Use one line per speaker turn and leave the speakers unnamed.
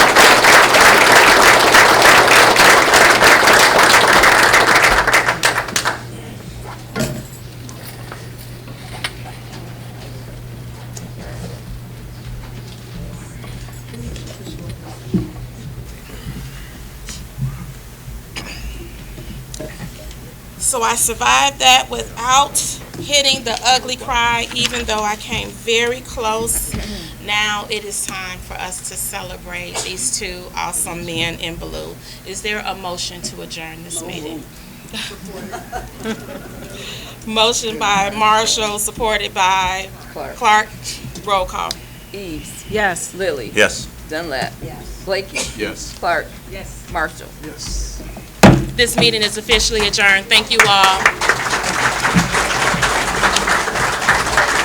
So I survived that without hitting the ugly cry, even though I came very close. Now it is time for us to celebrate these two awesome men in blue. Is there a motion to adjourn this meeting? Motion by Marshall, supported by
Clark.
Clark. Roll call.
Eves. Yes. Lily.
Yes.
Dunlap. Yes. Blakey.
Yes.
Clark. Yes. Marshall.
Yes.
This meeting is officially adjourned. Thank you all.